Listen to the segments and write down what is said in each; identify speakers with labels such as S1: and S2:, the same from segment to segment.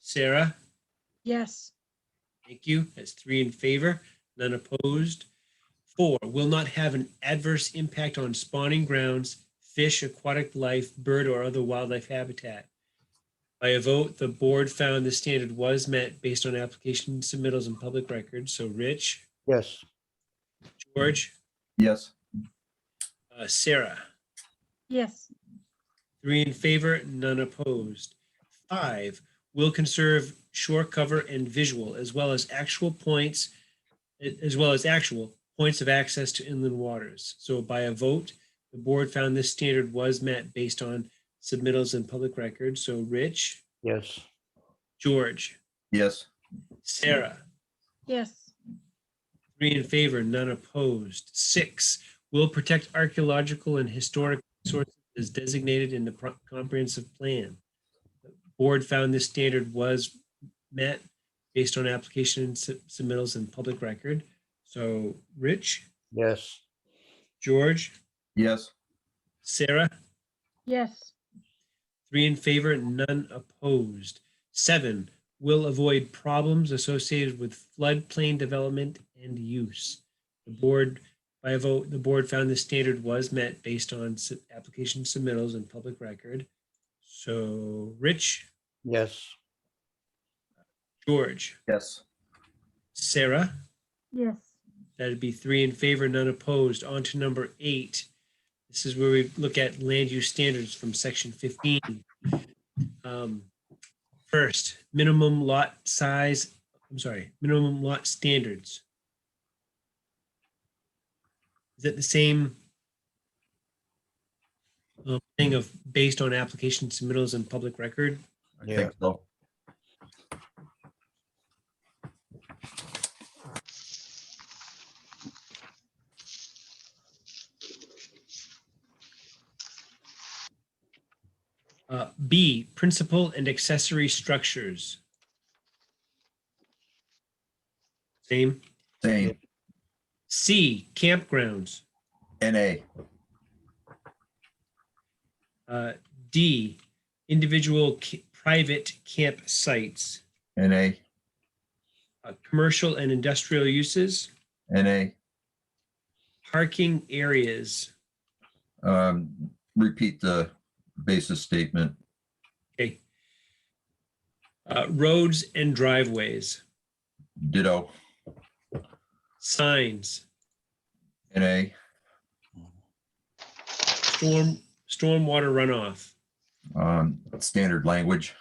S1: Sarah,
S2: Yes.
S1: thank you. That's three in favor, none opposed. Four, will not have an adverse impact on spawning grounds, fish, aquatic life, bird, or other wildlife habitat. By a vote, the board found the standard was met based on application submittals and public records. So Rich,
S3: Yes.
S1: George,
S4: Yes.
S1: uh, Sarah.
S2: Yes.
S1: Three in favor, none opposed. Five, will conserve shore cover and visual, as well as actual points, as well as actual points of access to inland waters. So by a vote, the board found this standard was met based on submittals and public records. So Rich,
S3: Yes.
S1: George,
S4: Yes.
S1: Sarah,
S2: Yes.
S1: three in favor, none opposed. Six, will protect archaeological and historic resources as designated in the pro- comprehensive plan. The Board found this standard was met based on application sub- submittals and public record. So Rich,
S3: Yes.
S1: George,
S4: Yes.
S1: Sarah,
S2: Yes.
S1: Three in favor, none opposed. Seven, will avoid problems associated with floodplain development and use. The board, by a vote, the board found the standard was met based on su- application submittals and public record. So Rich,
S3: Yes.
S1: George,
S4: Yes.
S1: Sarah,
S2: Yes.
S1: That'd be three in favor, none opposed. On to number eight. This is where we look at land use standards from section fifteen. Um, First, minimum lot size, I'm sorry, minimum lot standards. Is it the same um, thing of based on application submittals and public record?
S4: I
S3: Yeah.
S4: think so.
S1: Uh, B, principal and accessory structures. Same.
S4: Same.
S1: C, campgrounds.
S4: NA.
S1: Uh, D, individual ca- private campsites,
S4: NA.
S1: uh, commercial and industrial uses,
S4: NA.
S1: parking areas.
S4: Um, repeat the basis statement.
S1: Okay. Uh, roads and driveways,
S4: Ditto.
S1: signs,
S4: NA.
S1: storm, stormwater runoff,
S4: Um, standard language.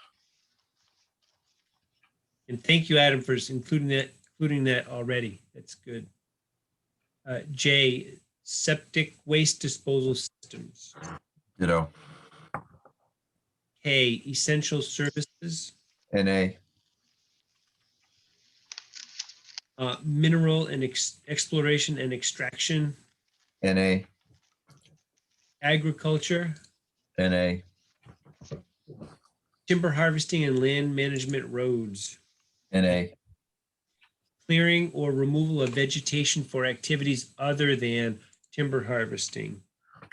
S1: And thank you, Adam, for including that, including that already. That's good. Uh, J, septic waste disposal systems.
S4: Ditto.
S1: K, essential services,
S4: NA.
S1: uh, mineral and ex- exploration and extraction,
S4: NA.
S1: agriculture,
S4: NA.
S1: timber harvesting and land management roads,
S4: NA.
S1: clearing or removal of vegetation for activities other than timber harvesting.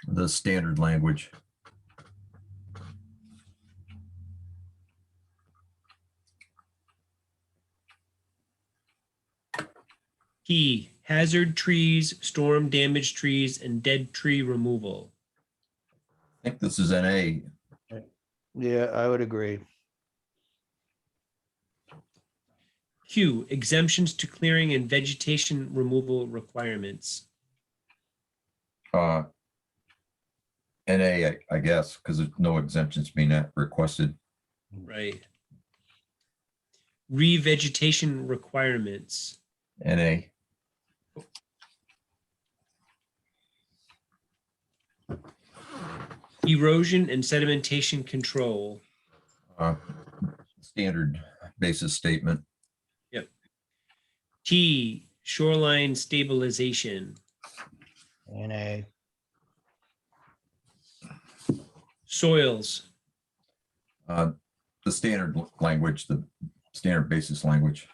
S4: The standard language.
S1: P, hazard trees, storm damaged trees, and dead tree removal.
S4: I think this is NA.
S3: Yeah, I would agree.
S1: Q, exemptions to clearing and vegetation removal requirements.
S4: Uh, NA, I- I guess, because there's no exemptions being uh, requested.
S1: Right. Revegetation requirements.
S4: NA.
S1: Erosion and sedimentation control.
S4: Uh, Standard basis statement.
S1: T, shoreline stabilization.
S3: NA.
S1: Soils.
S4: Uh, The standard l- language, the standard basis language.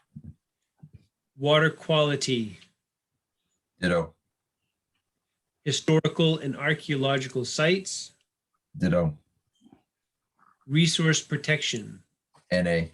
S1: Water quality.
S4: Ditto,
S1: Historical and archaeological sites.
S4: ditto,
S1: Resource protection.
S4: NA.